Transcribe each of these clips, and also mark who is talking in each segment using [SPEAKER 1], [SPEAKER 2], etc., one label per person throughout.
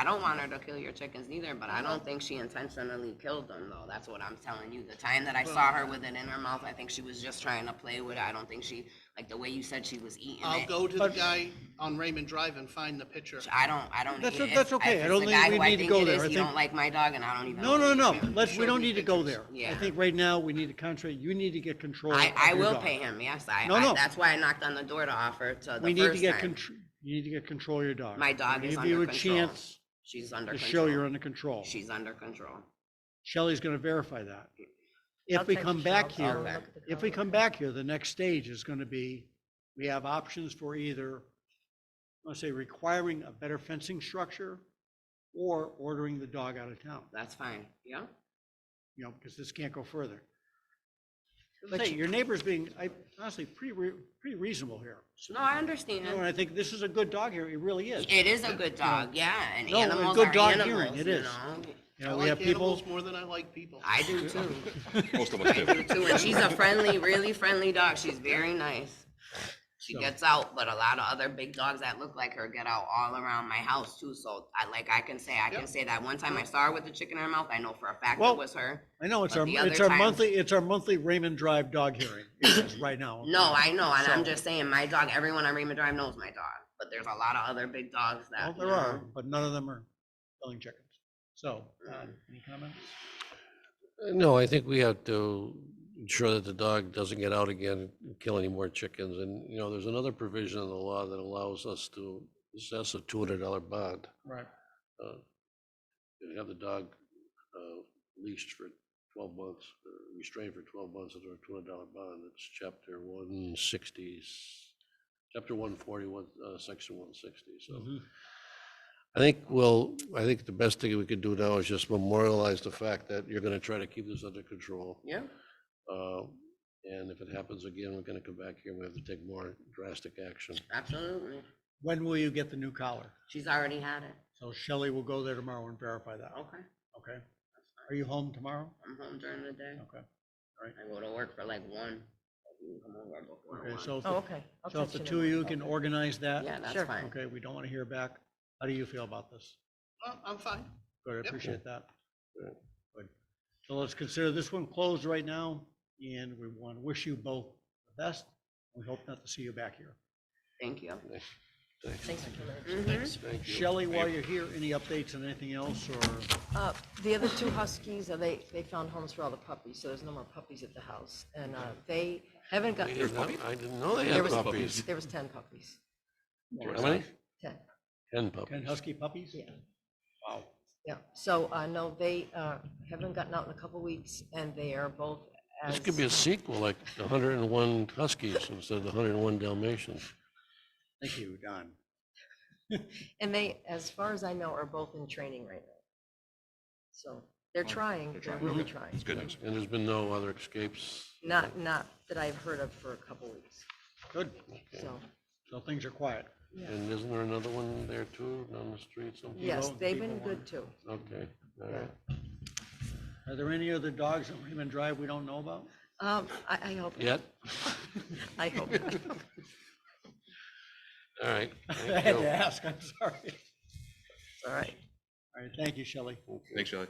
[SPEAKER 1] I don't want her to kill your chickens neither, but
[SPEAKER 2] Uh-huh.
[SPEAKER 1] I don't think she intentionally killed them though. That's what I'm telling you. The time that I saw her with it in her mouth, I think she was just trying to play with it. I don't think she, like the way you said she was eating
[SPEAKER 3] I'll
[SPEAKER 1] it.
[SPEAKER 3] go to the guy on Raymond Drive and find the picture.
[SPEAKER 1] I don't, I don't.
[SPEAKER 2] That's
[SPEAKER 1] eat
[SPEAKER 2] o-
[SPEAKER 1] it. If-
[SPEAKER 2] that's okay.
[SPEAKER 1] if
[SPEAKER 2] I
[SPEAKER 1] it's
[SPEAKER 2] don't
[SPEAKER 1] the
[SPEAKER 2] think
[SPEAKER 1] guy
[SPEAKER 2] we
[SPEAKER 1] who I
[SPEAKER 2] need to
[SPEAKER 1] think
[SPEAKER 2] go
[SPEAKER 1] it
[SPEAKER 2] there.
[SPEAKER 1] is,
[SPEAKER 2] I
[SPEAKER 1] You
[SPEAKER 2] think-
[SPEAKER 1] don't like my dog and I don't even.
[SPEAKER 2] No, no,
[SPEAKER 1] like
[SPEAKER 2] no,
[SPEAKER 1] him.
[SPEAKER 2] let's,
[SPEAKER 1] Show
[SPEAKER 2] we don't
[SPEAKER 1] me
[SPEAKER 2] need to go
[SPEAKER 1] pictures.
[SPEAKER 2] there. I
[SPEAKER 1] Yeah.
[SPEAKER 2] think right now, we need to concentrate, you need to get control.
[SPEAKER 1] I,
[SPEAKER 2] of
[SPEAKER 1] I
[SPEAKER 2] your
[SPEAKER 1] will
[SPEAKER 2] dog.
[SPEAKER 1] pay him, yes, I,
[SPEAKER 2] No,
[SPEAKER 1] I,
[SPEAKER 2] no.
[SPEAKER 1] that's why I knocked on the door to offer to the
[SPEAKER 2] We need to
[SPEAKER 1] first
[SPEAKER 2] get,
[SPEAKER 1] time.
[SPEAKER 2] contr- you need to get control of your dog.
[SPEAKER 1] My dog
[SPEAKER 2] We
[SPEAKER 1] is
[SPEAKER 2] Give you
[SPEAKER 1] under
[SPEAKER 2] a
[SPEAKER 1] control.
[SPEAKER 2] chance
[SPEAKER 1] She's under
[SPEAKER 2] to
[SPEAKER 1] control.
[SPEAKER 2] show you're under control.
[SPEAKER 1] She's under control.
[SPEAKER 2] Shelley's gonna verify that.
[SPEAKER 4] I'll
[SPEAKER 2] If we
[SPEAKER 4] text
[SPEAKER 2] come
[SPEAKER 4] you,
[SPEAKER 2] back
[SPEAKER 4] I'll
[SPEAKER 1] look
[SPEAKER 2] here,
[SPEAKER 4] at the
[SPEAKER 2] if we
[SPEAKER 4] color.
[SPEAKER 2] come back here, the next stage is gonna be, we have options for either, let's say, requiring a better fencing structure or ordering the dog out of town,
[SPEAKER 1] That's fine, yeah?
[SPEAKER 2] you know, because this can't go further. Let's say, your neighbor's being, I honestly, pretty, re- pretty reasonable here.
[SPEAKER 1] No, I
[SPEAKER 2] You know, and
[SPEAKER 1] understand.
[SPEAKER 2] I think this is a good dog here, it really is.
[SPEAKER 1] It is a good dog, yeah, and
[SPEAKER 2] No, a
[SPEAKER 1] animals
[SPEAKER 2] good
[SPEAKER 1] are
[SPEAKER 2] dog hearing,
[SPEAKER 1] animals,
[SPEAKER 2] it
[SPEAKER 1] you
[SPEAKER 2] is.
[SPEAKER 1] know?
[SPEAKER 2] You
[SPEAKER 3] I
[SPEAKER 2] know, we have
[SPEAKER 3] like animals
[SPEAKER 2] people,
[SPEAKER 3] more than I like people.
[SPEAKER 1] I do too,
[SPEAKER 5] Most of us do.
[SPEAKER 1] too, and she's a friendly, really friendly dog, she's very nice. She
[SPEAKER 2] So-
[SPEAKER 1] gets out, but a lot of other big dogs that look like her get out all around my house too, so I, like, I can say, I can
[SPEAKER 3] Yep.
[SPEAKER 1] say that one time I saw her with the chicken in her mouth, I know for a fact
[SPEAKER 2] Well,
[SPEAKER 1] it was her.
[SPEAKER 2] I know, it's
[SPEAKER 1] But
[SPEAKER 2] our,
[SPEAKER 1] the
[SPEAKER 2] it's
[SPEAKER 1] other
[SPEAKER 2] our
[SPEAKER 1] times-
[SPEAKER 2] monthly, it's our monthly Raymond Drive dog hearing, it is right now.
[SPEAKER 1] No, I know, and I'm
[SPEAKER 2] So-
[SPEAKER 1] just saying, my dog, everyone on Raymond Drive knows my dog, but there's a lot of other big dogs
[SPEAKER 2] Well,
[SPEAKER 1] that. you
[SPEAKER 2] there are,
[SPEAKER 1] know,
[SPEAKER 2] but none of them are selling chickens. So, uh,
[SPEAKER 1] Mm.
[SPEAKER 2] any comments?
[SPEAKER 6] No, I think we have to ensure that the dog doesn't get out again and kill any more chickens. And, you know, there's another provision in the law that allows us to assess a two hundred dollar bond.
[SPEAKER 2] Right.
[SPEAKER 6] uh, and Have the dog uh, leashed for twelve months, or restrained for twelve months under a two hundred dollar bond. It's chapter one sixty, chapter one forty, one, uh, section one sixty, so.
[SPEAKER 2] Mm-hmm.
[SPEAKER 6] I think, well, I think the best thing we could do now is just memorialize the fact that you're gonna try to keep this under control.
[SPEAKER 1] Yeah,
[SPEAKER 6] uh, And if it happens again, we're gonna come back here, we have to take more drastic action.
[SPEAKER 1] absolutely.
[SPEAKER 2] When will you get the new collar?
[SPEAKER 1] She's already had it.
[SPEAKER 2] So Shelley will go there tomorrow and verify that,
[SPEAKER 1] Okay,
[SPEAKER 2] okay? Are you home tomorrow?
[SPEAKER 1] I'm home during the day.
[SPEAKER 2] Okay,
[SPEAKER 1] I go to work for like one. You can come over before
[SPEAKER 2] okay,
[SPEAKER 1] one.
[SPEAKER 2] so if,
[SPEAKER 4] Oh,
[SPEAKER 2] the-
[SPEAKER 4] okay. I'll
[SPEAKER 2] so if
[SPEAKER 4] text
[SPEAKER 2] the
[SPEAKER 4] in
[SPEAKER 2] two of you
[SPEAKER 4] morning.
[SPEAKER 2] can organize that?
[SPEAKER 1] Yeah, that's
[SPEAKER 4] Sure.
[SPEAKER 1] fine.
[SPEAKER 2] Okay, we don't want to hear back. How do you feel about this?
[SPEAKER 3] Oh, I'm fine.
[SPEAKER 2] Good, I
[SPEAKER 3] Yep.
[SPEAKER 2] appreciate that.
[SPEAKER 6] Yeah.
[SPEAKER 2] Good. So let's consider this one closed right now, and we want to wish you both the best. We hope not to see you back here.
[SPEAKER 1] Thank you.
[SPEAKER 4] Thanks for coming in.
[SPEAKER 1] Mhm.
[SPEAKER 6] Thank you.
[SPEAKER 2] Shelley, while you're here, any updates on anything else, or?
[SPEAKER 4] Uh, The other two huskies, uh, they, they found homes for all the puppies, so there's no more puppies at the house. And uh, they haven't
[SPEAKER 6] I
[SPEAKER 4] got,
[SPEAKER 6] didn't know- I didn't know they
[SPEAKER 4] There
[SPEAKER 6] had
[SPEAKER 4] was-
[SPEAKER 6] puppies.
[SPEAKER 4] there was 10 puppies,
[SPEAKER 6] How many?
[SPEAKER 4] 10.
[SPEAKER 6] Ten
[SPEAKER 2] Ten
[SPEAKER 6] puppies.
[SPEAKER 2] husky puppies?
[SPEAKER 4] Yeah.
[SPEAKER 2] Wow.
[SPEAKER 4] Yeah, so, uh, no, they, uh, haven't gotten out in a couple weeks and they are both as.
[SPEAKER 6] This could be a sequel, like the hundred and one Huskies instead of the hundred and one Dalmatians.
[SPEAKER 2] Thank you, Don.
[SPEAKER 4] And they, as far as I know, are both in training right now. So they're trying, they're really trying.
[SPEAKER 5] It's good.
[SPEAKER 6] And there's been no other escapes.
[SPEAKER 4] Not, not that I've heard of for a couple weeks,
[SPEAKER 2] Good.
[SPEAKER 4] so,
[SPEAKER 2] So things are quiet.
[SPEAKER 6] And isn't there another one there too, down the street somewhere?
[SPEAKER 4] yes,
[SPEAKER 2] vote,
[SPEAKER 4] they've
[SPEAKER 2] people
[SPEAKER 4] been good
[SPEAKER 2] want-
[SPEAKER 4] too.
[SPEAKER 6] Okay, all right.
[SPEAKER 2] Are there any other dogs on Raymond Drive we don't know about?
[SPEAKER 4] Um, I, I hope,
[SPEAKER 6] Yet?
[SPEAKER 4] I hope.
[SPEAKER 6] All right.
[SPEAKER 2] I
[SPEAKER 6] thank
[SPEAKER 2] had
[SPEAKER 6] you.
[SPEAKER 2] to ask, I'm sorry.
[SPEAKER 4] All right.
[SPEAKER 2] All right, thank you, Shelley.
[SPEAKER 5] Thanks, Shelley.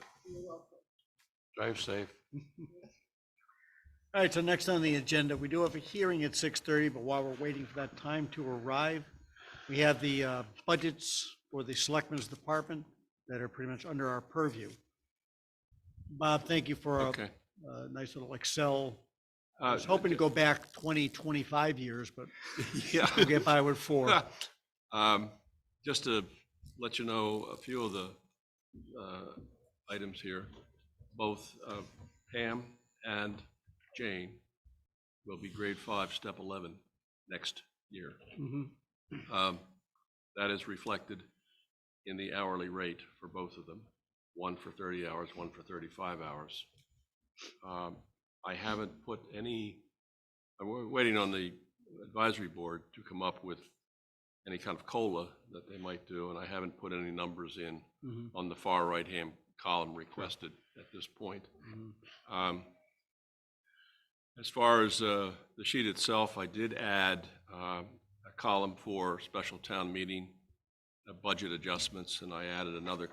[SPEAKER 6] Drive safe.
[SPEAKER 2] All right, so next on the agenda, we do have a hearing at six thirty, but while we're waiting for that time to arrive, we have the uh, budgets for the Selectmen's Department that are pretty much under our purview. Bob, thank you for a
[SPEAKER 5] Okay.
[SPEAKER 2] a nice little Excel. I
[SPEAKER 5] Uh,
[SPEAKER 2] was hoping to go back 20, 25 years, but we'll
[SPEAKER 5] Yeah.
[SPEAKER 2] get by with four.
[SPEAKER 5] Um, Just to let you know, a few of the uh, items here, both uh, Pam and Jane will be grade five, step 11 next year.
[SPEAKER 2] Mhm.
[SPEAKER 5] Um, That is reflected in the hourly rate for both of them, one for 30 hours, one for 35 hours. Um, I haven't put any, I'm wa- waiting on the advisory board to come up with any kind of COLA that they might do, and I haven't put any numbers in
[SPEAKER 2] Mhm.
[SPEAKER 5] on the far right-hand column requested at this point.
[SPEAKER 2] Mhm.
[SPEAKER 5] Um, As far as uh, the sheet itself, I did add um, a column for special town meeting uh, budget adjustments, and I added another